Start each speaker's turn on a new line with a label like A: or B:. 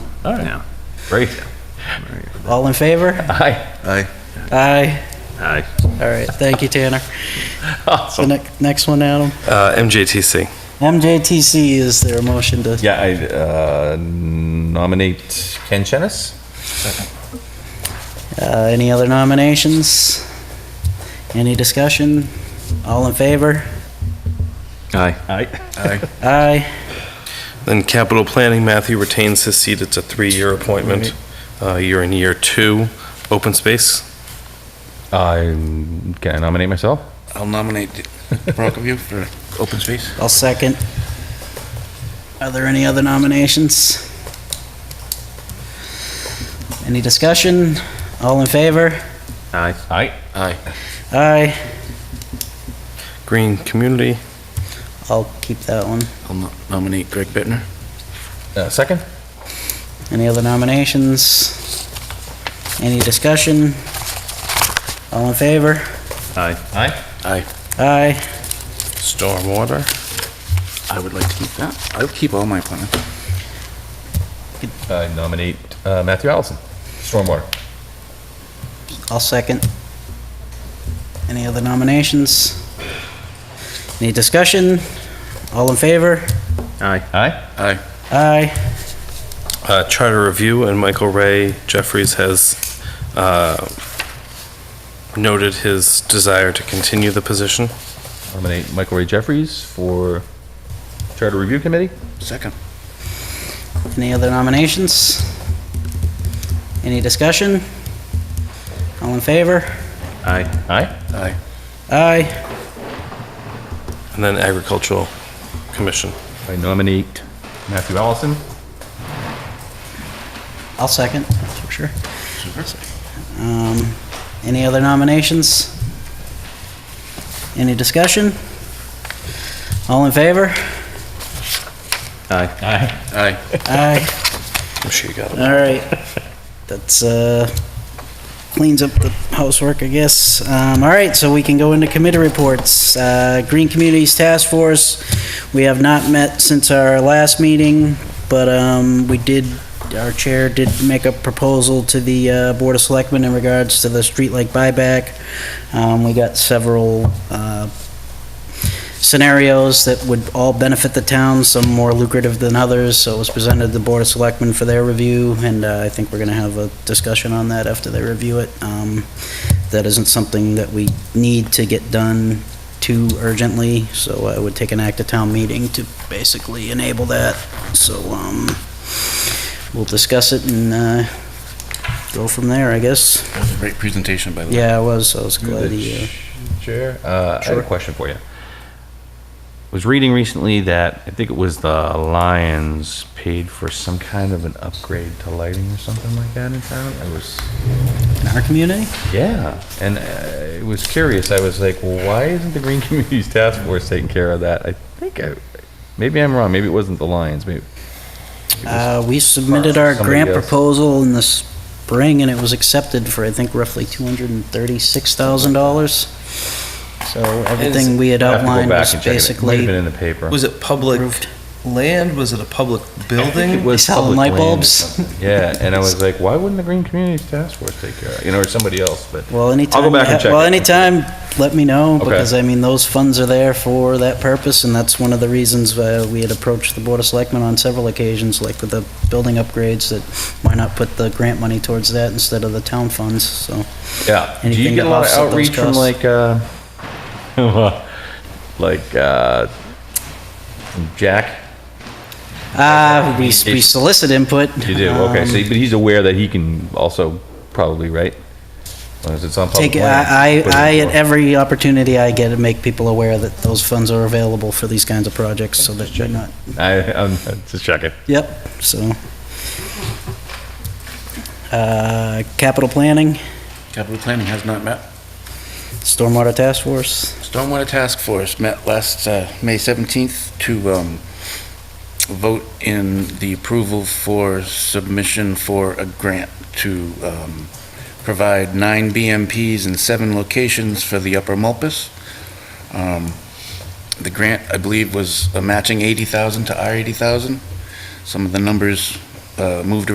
A: All right.
B: No.
A: Great.
C: All in favor?
A: Aye.
D: Aye.
C: Aye.
A: Aye.
C: All right, thank you, Tanner. The
A: Awesome.
C: next, next one, Adam.
B: Uh, MJTC.
C: MJTC, is there a motion to?
A: Yeah, I uh, nominate Ken Chenis.
C: Uh, Any other nominations? Any discussion? All in favor?
B: Aye.
A: Aye.
D: Aye.
C: Aye.
B: Then capital planning, Matthew retains his seat. It's a three-year appointment. Uh, You're in year two. Open space.
A: Um, Can I nominate myself?
D: I'll nominate Brockerview for open space.
C: I'll second. Are there any other nominations? Any discussion? All in favor?
A: Aye. Aye.
B: Aye.
C: Aye.
B: Green Community.
C: I'll keep that one.
D: I'll no- nominate Greg Bittner.
A: Uh, Second?
C: Any other nominations? Any discussion? All in favor?
A: Aye. Aye.
D: Aye.
C: Aye.
B: Stormwater.
D: I would like to keep that. I'll keep all my appointments.
A: I nominate uh, Matthew Allison. Stormwater.
C: I'll second. Any other nominations? Any discussion? All in favor?
A: Aye. Aye.
D: Aye.
C: Aye.
B: Uh, Charter Review, and Michael Ray Jeffries has uh, noted his desire to continue the position.
A: Nominate Michael Ray Jeffries for Charter Review Committee.
D: Second.
C: Any other nominations? Any discussion? All in favor?
A: Aye. Aye.
D: Aye.
C: Aye.
B: And then Agricultural Commission.
A: I nominate Matthew Allison.
C: I'll second, for sure. Um, Any other nominations? Any discussion? All in favor?
A: Aye. Aye.
D: Aye.
C: Aye.
B: I'm sure you got it.
C: All right. That's, uh, cleans up the housework, I guess. Um, all right, so we can go into committee reports. Uh, Green Communities Task Force, we have not met since our last meeting, but, um, we did, our chair did make a proposal to the, uh, Board of Selectmen in regards to the streetlight buyback. Um, we got several, uh, scenarios that would all benefit the town, some more lucrative than others, so it was presented to the Board of Selectmen for their review, and uh, I think we're going to have a discussion on that after they review it. Um, That isn't something that we need to get done too urgently, so I would take an act of town meeting to basically enable that. So um, we'll discuss it and uh, go from there, I guess.
D: That was a great presentation, by the way.
C: Yeah, I was, I was glad he, uh,
A: The Chair, uh, I have a question for you. Was reading recently that, I think it was the Lions paid for some kind of an upgrade to lighting or something like that in town. I was,
C: in our community?
A: yeah, and uh, I was curious. I was like, well, why isn't the Green Communities Task Force taking care of that? I think I, maybe I'm wrong. Maybe it wasn't the Lions. Maybe. it was-
C: Uh, we submitted our
A: somebody
C: grant
A: else.
C: proposal in the spring, and it was accepted for, I think, roughly $236,000. So everything we had
A: I have to go
C: outlined
A: back
C: was
A: and check it. It might have been
C: basically
A: in the paper.
E: Was it public
C: approved.
E: land? Was it a public
A: I think it
E: building?
A: was
C: They sell
A: public
C: light
A: land or
C: bulbs.
A: something. Yeah, and I was like, why wouldn't the Green Communities Task Force take care of it? You know, or somebody else, but.
C: Well, anytime,
A: I'll go
C: you
A: back and
C: ha-
A: check
C: well,
A: it.
C: anytime, let me know,
A: Okay.
C: because I mean, those funds are there for that purpose, and that's one of the reasons uh, we had approached the Board of Selectmen on several occasions, like with the building upgrades, that why not put the grant money towards that instead of the town funds, so.
A: Yeah. Do
C: Anything
A: you get a
C: to
A: lot of
C: offset those
A: outreach from
C: costs.
A: like, uh, like, uh, from Jack?
C: Uh, we we solicit input.
A: You do, okay,
C: um,
A: so, but he's aware that he can also probably, right? As long as it's on public
C: Take, I,
A: land.
C: I, I- at every opportunity I get, to make people aware that those funds are available for these kinds of projects, so that you're not,
A: I, I'm just checking.
C: yep, so. Uh, capital planning,
D: Capital Planning has not met.
C: stormwater task force,
D: Stormwater Task Force met last, uh, May 17th to, um, vote in the approval for submission for a grant to, um, provide nine BMPs in seven locations for the Upper Mulpus. Um, The grant, I believe, was a matching 80,000 to our 80,000. Some of the numbers, uh, moved